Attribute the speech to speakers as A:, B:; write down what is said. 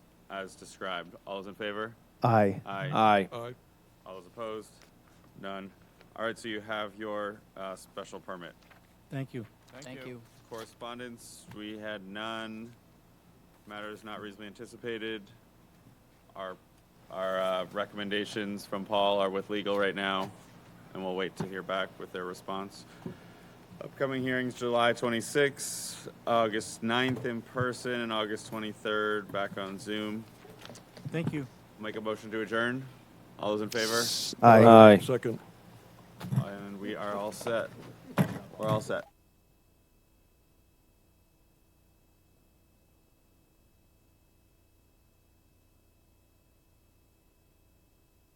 A: as described. All those in favor?
B: Aye.
A: Aye.
C: Aye.
D: Aye.
A: All those opposed? None. All right, so you have your uh, special permit.
E: Thank you.
F: Thank you.
A: Correspondence, we had none. Matters not reasonably anticipated. Our, our uh, recommendations from Paul are with legal right now, and we'll wait to hear back with their response. Upcoming hearings, July 26th, August 9th in person, and August 23rd back on Zoom.
E: Thank you.
A: Make a motion to adjourn. All those in favor?
B: Aye.
C: Aye.
D: Second.
A: And we are all set. We're all set.